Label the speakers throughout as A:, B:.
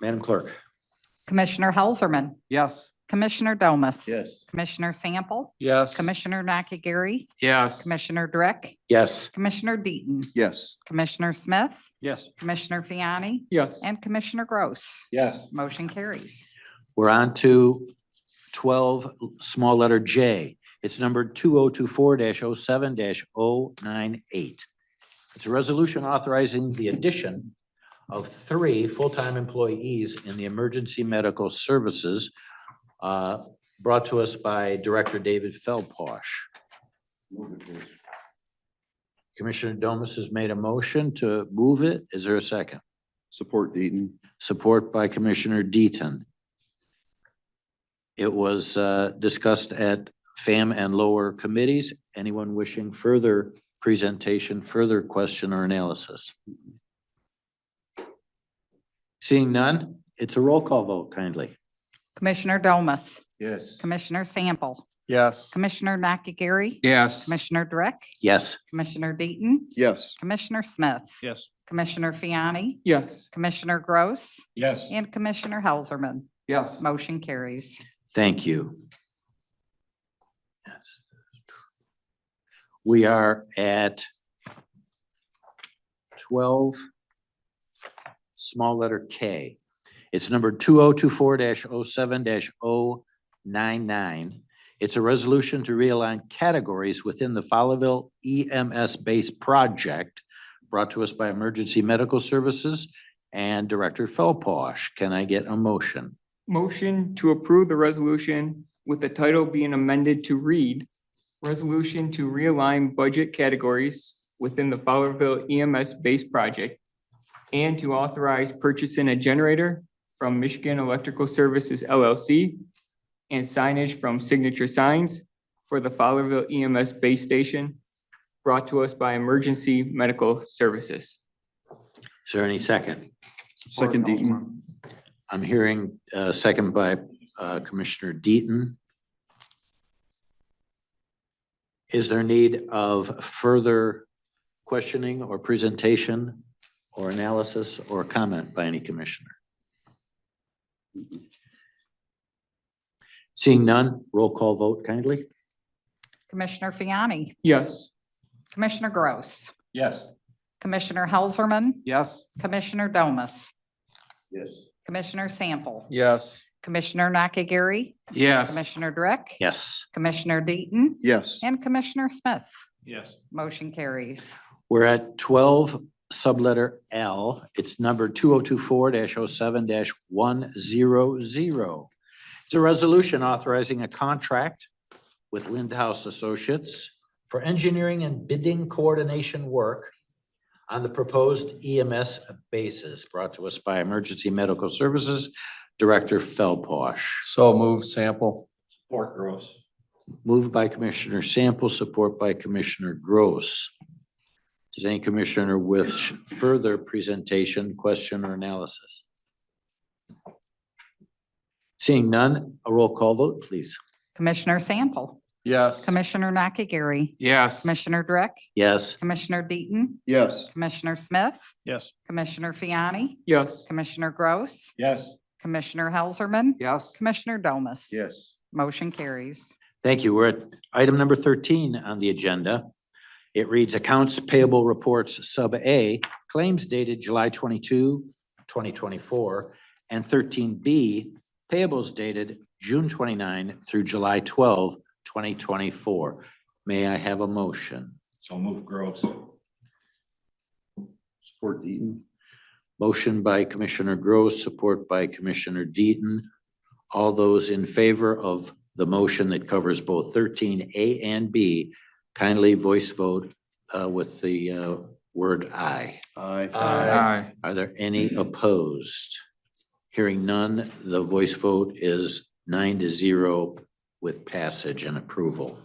A: Madam Clerk.
B: Commissioner Helserman,
C: Yes.
B: Commissioner Domas.
A: Yes.
B: Commissioner Sample,
C: Yes.
B: Commissioner Nakagiri,
D: Yes.
B: Commissioner Drick,
A: Yes.
B: Commissioner Deaton,
C: Yes.
B: Commissioner Smith,
C: Yes.
B: Commissioner Fiani,
C: Yes.
B: and Commissioner Gross.
C: Yes.
B: Motion carries.
A: We're on to twelve, small letter J. It's numbered two oh two four 7 98 It's a resolution authorizing the addition of three full-time employees in the emergency medical services uh, brought to us by Director David Feldposh. Commissioner Domas has made a motion to move it. Is there a second?
C: Support Deaton.
A: Support by Commissioner Deaton. It was uh, discussed at FAM and lower committees. Anyone wishing further presentation, further question or analysis? Seeing none, it's a roll call vote kindly.
B: Commissioner Domas,
C: Yes.
B: Commissioner Sample,
C: Yes.
B: Commissioner Nakagiri,
D: Yes.
B: Commissioner Drick,
A: Yes,
B: Commissioner Deaton,
C: Yes.
B: Commissioner Smith,
C: Yes.
B: Commissioner Fiani,
C: Yes.
B: Commissioner Gross,
C: Yes.
B: and Commissioner Helserman.
C: Yes.
B: Motion carries.
A: thank you. We are at twelve, small letter K. It's number two oh two four 7 99 It's a resolution to realign categories within the Fowlerville EMS base project brought to us by Emergency Medical Services and Director Felposh. Can I get a motion?
E: Motion to approve the resolution with the title being amended to read Resolution to realign budget categories within the Fowlerville EMS base project and to authorize purchasing a generator from Michigan Electrical Services LLC and signage from Signature Signs for the Fowlerville EMS base station brought to us by Emergency Medical Services.
A: Is there any second?
C: Second Deaton.
A: I'm hearing uh second by uh, Commissioner Deaton. Is there need of further questioning or presentation or analysis or comment by any commissioner? Seeing none, roll call vote kindly.
B: Commissioner Fiani,
E: Yes.
B: Commissioner Gross,
C: Yes.
B: Commissioner Helserman,
C: Yes.
B: Commissioner Domas,
C: Yes.
B: Commissioner Sample,
C: Yes.
B: Commissioner Nakagiri,
D: Yes.
B: Commissioner Drick,
A: Yes,
B: Commissioner Deaton,
C: Yes.
B: and Commissioner Smith.
C: Yes.
B: Motion carries.
A: we're at twelve subletter L. It's number two oh two four 7 one zero zero. It's a resolution authorizing a contract with Lindhouse Associates for engineering and bidding coordination work on the proposed E EMS basis brought to us by Emergency Medical Services Director Felposh.
C: So move sample. Support Gross.
A: Moved by Commissioner Sample, support by Commissioner Gross. Does any commissioner wish further presentation, question, or analysis? Seeing none, a roll call vote, please.
B: Commissioner Sample,
C: Yes.
B: Commissioner Nakagiri,
D: Yes.
B: Commissioner Drick,
A: Yes,
B: Commissioner Deaton,
C: Yes.
B: Commissioner Smith,
C: Yes.
B: Commissioner Fiani,
E: Yes.
B: Commissioner Gross,
C: Yes.
B: Commissioner Helserman,
C: Yes.
B: Commissioner Domas.
C: Yes.
B: Motion carries.
A: thank you. We're at item number thirteen on the agenda. It reads Accounts Payable Reports Sub A, claims dated July 22, 2024, and thirteen B, payables dated June 29 through July 12, 2024. May I have a motion?
C: So move Gross. Support Deaton.
A: Motion by Commissioner Gross, support by Commissioner Deaton. All those in favor of the motion that covers both thirteen A and B, kindly voice vote uh, with the uh, word aye.
C: Aye.
D: Aye.
A: Are there any opposed? Hearing none, the voice vote is nine to zero with passage and approval.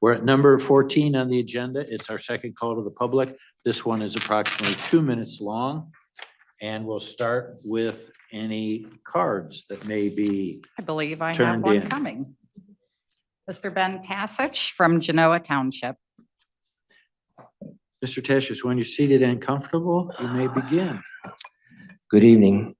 A: We're at number fourteen on the agenda. It's our second call to the public. This one is approximately two minutes long. And we'll start with any cards that may be,
B: I believe I have
A: Turned
B: one
A: in.
B: coming. Mr. Ben Tassich from Genoa Township.
A: Mr. Tashus, when you're seated and comfortable, you may begin.
F: Good evening.